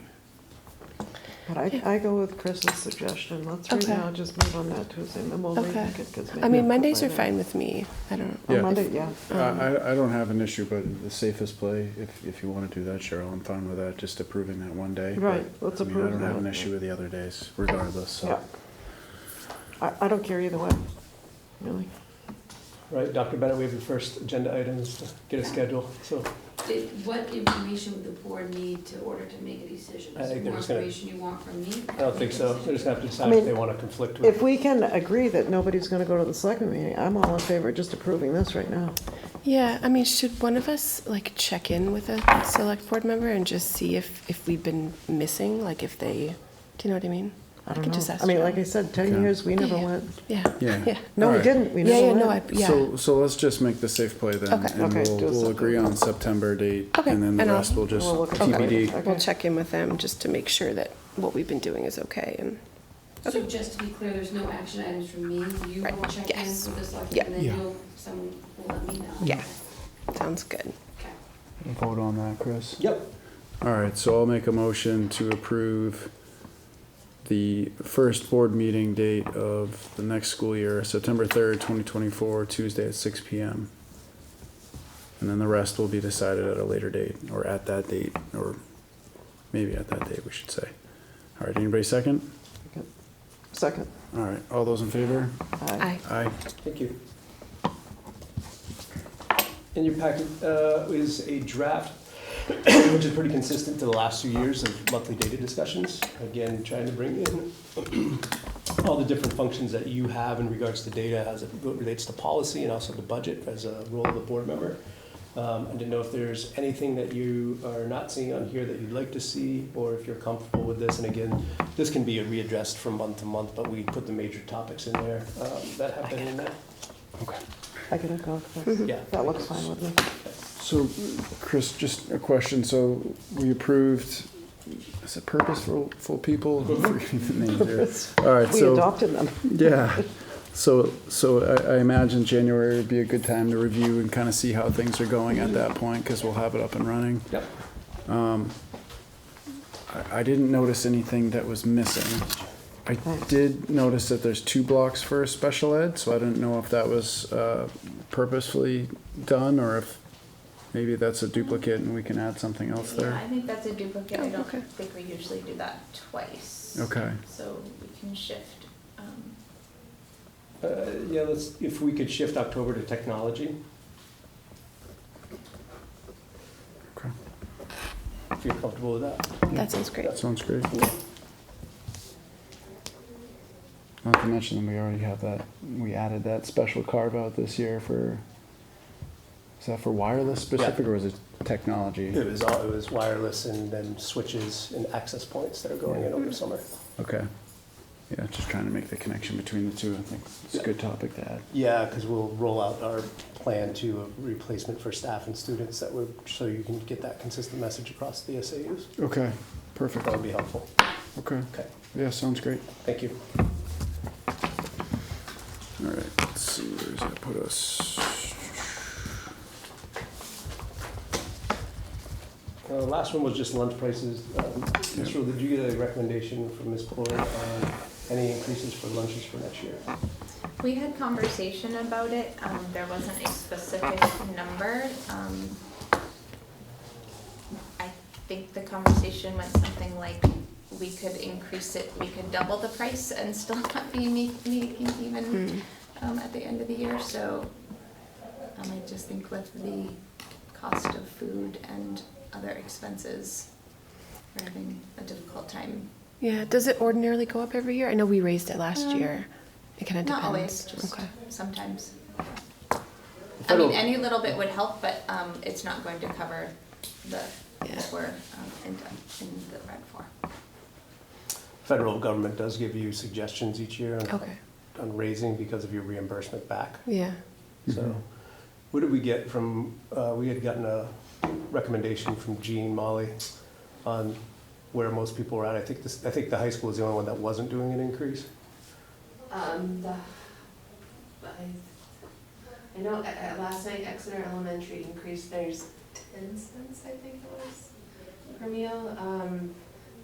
But I, I go with Chris's suggestion, let's right Okay. now just move on that Tuesday, and then we'll Okay. rethink it, 'cause I maybe mean, Mondays are Friday- fine with me. I don't. um, Oh, Yeah. Monday, yeah, I, I, I don't have an issue, but the safest play, if, if you want to do that, Cheryl, I'm fine with that, just approving that one day. but, Right, let's I mean, approve I don't have that. an issue with the other days regardless, yeah. so. I, I don't care either way, really. Right, Dr. Bennett, we have the first agenda items to get a schedule, so Did, what information would the board need to order to make a decision? I Is there think they're more just gonna- information you want from me? I don't think so. They're just gonna have to I decide mean, if they wanna conflict with. If we can agree that nobody's gonna go to the second meeting, I'm all in favor of just approving this right now. Yeah, I mean, should one of us like check in with a select board member and just see if if we've been missing, like if they, do you know what I mean? I can don't just know, ask I mean, Jen. like I said, ten Okay. years, we never Yeah. went, Yeah. Yeah. Yeah. no, we Alright. didn't, we yeah. Yeah. never No. I, went. yeah. So, so let's just make the safe play then, Okay. and Okay, we'll, do we'll something. agree on September date, Okay, and then the and I'll- rest will just We'll look at TBD. that. Okay. We'll check in with them just to make sure that what we've been doing is okay. And So just to be clear, there's no action items from me, you will Right, check in yes. with the select, Yeah. and then Yeah. you'll, someone will let me know. Yeah. sounds good. Okay. Vote on that, Chris. Yep. All right, so I'll make a motion to approve the first board meeting date of the next school year, September third, twenty twenty-four, Tuesday at six P M. And then the rest will be decided at a later date, or at that date, or maybe at that date, we should say. All right, anybody second? Second, All right, all those in favor? aye. Aye. Thank you. In your packet uh, is a draft, which is pretty consistent to the last two years of monthly data discussions. Again, trying to bring in all the different functions that you have in regards to data as it relates to policy and also the budget as a role of the board member. Um, I didn't know if there's anything that you are not seeing on here that you'd like to see, or if you're comfortable with this. And again, this can be readdressed from month to month, but we put the major topics in there um, that have been in there. Okay. I can go with this. Yeah. That looks fine with me. So, Chris, just a question, so we approved, is it purposeful, full people? I'm forgetting the names here. All right, We so. adopted them. Yeah. So, so I, I imagine January would be a good time to review and kind of see how things are going at that point because we'll have it up and running. Um, Yep. I, I didn't notice anything that was missing. I did notice that there's two blocks for special ed, so I didn't know if that was uh, purposefully done or if maybe that's a duplicate and we can add something else Yeah, there. I think that's a duplicate, I Oh, don't okay. think we usually do that twice. Okay. So we can shift, um, Uh, Yeah, let's, if we could shift October to technology, Okay. if you're comfortable with that. That sounds great. That sounds great. Not to mention that we already have that, we added that special carve out this year for, is that for wireless specific or was it technology? It was all, it was wireless and then switches and access points that are going in over the summer. Okay. Yeah, just trying to make the connection between the two. I think it's a good topic to add. Yeah, because we'll roll out our plan to a replacement for staff and students that would, so you can get that consistent message across the SAUs. Okay, perfect. That would be helpful. Okay. Okay, Yeah, sounds great. thank you. All right, let's see, where's that put us? Uh, the last one was just lunch prices. Um, Mr. Rule, did you get a recommendation from Ms. Ploy on any increases for lunches for next year? we had conversation about it, um, there wasn't a specific number, um. I think the conversation went something like, we could increase it, we could double the price and still not be ma- making Hmm. even, Mm. um, at the end of the year, so. Um, I just think with the cost of food and other expenses, we're having a difficult time. Yeah. Does it ordinarily go up every year? I know we raised it last Um, year. It kind of depends. Not always, just okay. sometimes. I Federal- mean, any little bit would help, but, um, it's not going to cover the, Yeah. what we're, um, in, in the red for. Federal government does give you suggestions each year on Okay. on raising because of your reimbursement back. Yeah. So what did we get from, uh, we had gotten a recommendation from Jean Molly on where most people were at. I think this, I think the high school is the only one that wasn't doing an increase. Um, the, I, I know, uh, last night Exeter Elementary increased theirs ten cents, I think it was, per meal. Um,